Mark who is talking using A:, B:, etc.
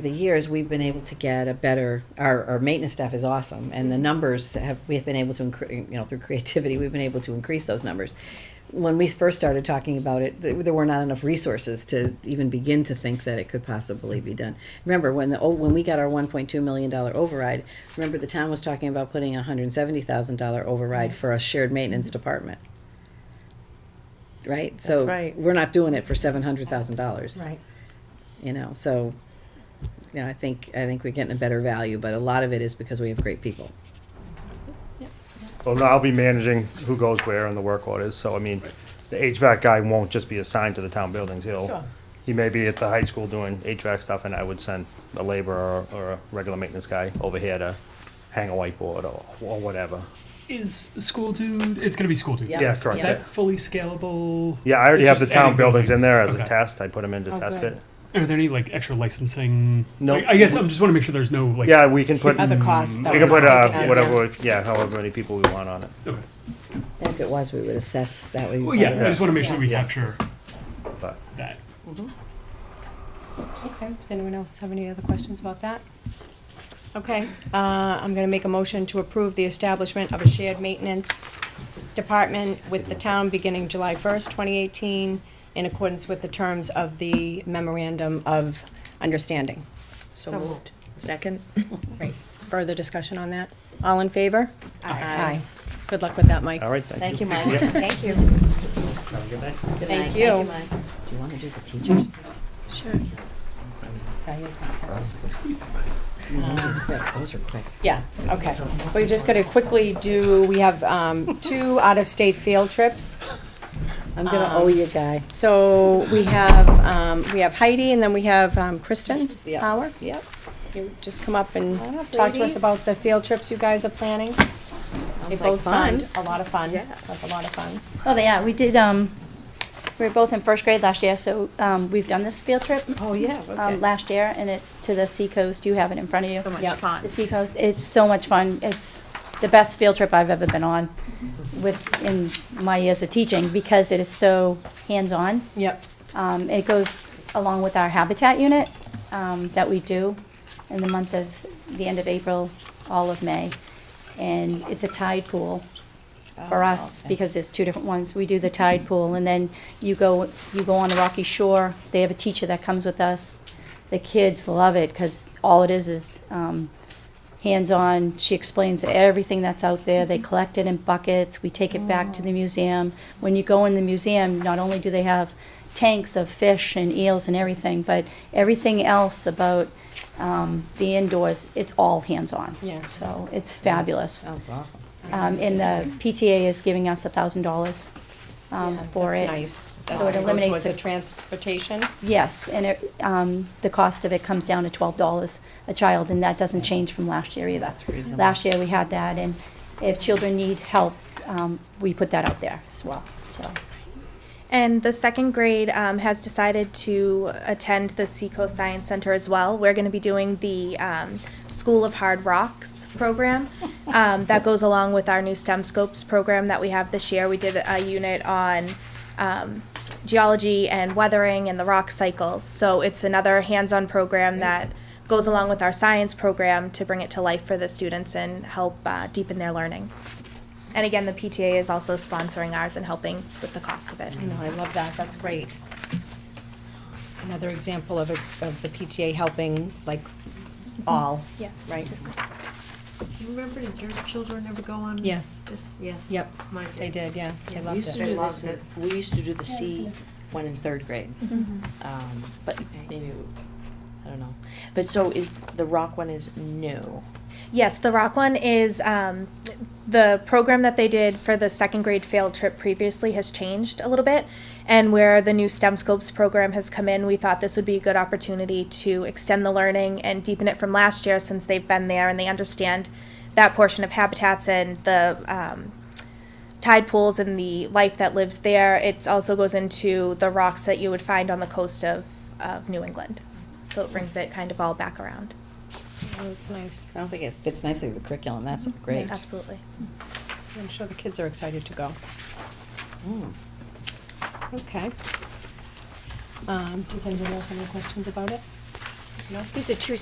A: the years, we've been able to get a better, our, our maintenance staff is awesome, and the numbers have, we have been able to, incre- you know, through creativity, we've been able to increase those numbers. When we first started talking about it, th- there were not enough resources to even begin to think that it could possibly be done. Remember, when the, oh, when we got our one point two million dollar override, remember the town was talking about putting a hundred and seventy thousand dollar override for a shared maintenance department? Right? So
B: right.
A: We're not doing it for seven hundred thousand dollars
B: Right.
A: you know so you know i think i think we're getting a better value but a lot of it is because we have great people
C: Well, no, I'll be managing who goes where and the work orders, so I mean, the HVAC guy won't just be assigned to the town buildings,
B: Sure.
C: he'll, he may be at the high school doing HVAC stuff, and I would send a laborer or, or a regular maintenance guy over here to hang a whiteboard or, or whatever.
D: Is school dude? It's gonna be school dude.
A: Yeah.
C: Yeah,
D: Is
C: correct, yeah.
D: that fully scalable?
C: Yeah, I already
D: It's
C: have the
D: just
C: town
D: adding
C: buildings in there as a
D: Okay.
C: test, I put them in to
B: Oh,
C: test
B: great.
C: it.
D: Are there any like extra licensing?
C: No.
D: Like, I guess I'm just want to make sure there's no like.
C: Yeah, we can put, we
B: Other costs. that
C: Mm, can
B: would
C: put,
B: not
C: uh,
B: make sense.
C: whatever, we- yeah, however many people we want on it.
D: Okay.
A: and if it was we would assess that way
D: Well, yeah. I just want to make
B: Yeah.
D: sure we
C: Yeah.
D: capture
C: But
D: that.
B: Okay, does anyone else have any other questions about that? Okay, uh, I'm gonna make a motion to approve the establishment of a shared maintenance department with the town beginning July first, twenty eighteen, in accordance with the terms of the memorandum of understanding.
E: So moved. Second?
B: Great. Further discussion on that? All in favor? Aye. Good luck with that, Mike.
C: All right, thank you.
A: thank you mike
C: Yeah.
E: Thank you.
A: Good
B: Thank
A: night.
B: you.
E: Mike.
A: do you want to do the teachers
E: Sure.
B: Diane's got that. Mm-hmm.
A: quick those are quick
B: Yeah, okay. We're just gonna quickly do, we have um, two out-of-state field trips.
A: i'm gonna owe you guy
B: So we have, um, we have Heidi and then we have um, Kristen
A: Yeah.
B: Power.
A: yep
B: You just come up and
E: Hi,
B: talk to us
E: ladies.
B: about the field trips you guys are planning. They
A: like
B: both
A: fun.
B: sound a lot of fun.
E: Yeah.
B: Like a lot of fun.
F: Oh, yeah, we did, um, we were both in first grade last year, so, um, we've done this field trip,
A: oh yeah
F: um, last year, and it's to the seacoast, you have it in front of you.
E: So much
B: Yep.
E: fun.
F: The seacoast, it's so much fun, it's the best field trip I've ever been on with, in my years of teaching, because it is so hands-on.
B: Yep.
F: Um, it goes along with our habitat unit um, that we do in the month of the end of April, all of May. And it's a tide pool for us because there's two different ones. We do the tide pool and then you go you go on the rocky shore. They have a teacher that comes with us. The kids love it because all it is is um, hands-on. She explains everything that's out there.
B: Mm-hmm.
F: They collect it in buckets. We take it back
B: Oh.
F: to the museum. When you go in the museum, not only do they have tanks of fish and eels and everything, but everything else about um, the indoors, it's all hands-on.
B: Yeah. Oh,
F: So it's fabulous.
A: sounds awesome
F: Um, and the PTA is giving us a thousand dollars, um,
B: Yeah,
F: for it.
B: That's nice. That's
F: it
B: gonna go
F: eliminates
B: towards the
F: the-
B: transportation.
F: Yes, and it, um, the cost of it comes down to twelve dollars a child, and that doesn't change from last year either.
A: That's reasonable.
F: Last year we had that, and if children need help, um, we put that out there as well, so.
G: And the second grade um, has decided to attend the Seacoast Science Center as well. We're going to be doing the um, School of Hard Rocks program um, that goes along with our new STEM Scopes program that we have this year. We did a unit on um, geology and weathering and the rock cycle. So it's another hands on program that goes along with our science program to bring it to life for the students and help uh, deepen their learning. And again, the PTA is also sponsoring ours and helping with the cost of it.
B: No, I love that, that's great. Another example of, a- of the PTA helping, like, all,
G: Yes.
B: right?
E: Do you remember, did your children ever go on?
B: Yeah.
E: This, yes.
B: Yep,
E: Mine
B: They did, yeah, they
E: We
B: loved
E: used to
B: it.
E: do this,
H: loved
E: at- we used to do the
F: I was
H: C
F: gonna say. Mm-hmm.
H: one in third grade. Um, but maybe, I don't know. But so is, the rock one is new.
G: Yes, the rock one is um, the program that they did for the second grade field trip previously has changed a little bit. And where the new STEM Scopes program has come in, we thought this would be a good opportunity to extend the learning and deepen it from last year since they've been there and they understand that portion of habitats and the um, tide pools and the life that lives there. It also goes into the rocks that you would find on the coast of, of New England. So it brings it kind of all back around.
B: Oh, it's nice.
A: sounds like it fits nicely with the curriculum that's great
G: Absolutely.
B: I'm sure the kids are excited to go.
A: Mm.
B: Okay. Um, does anyone else have any questions about it? These are two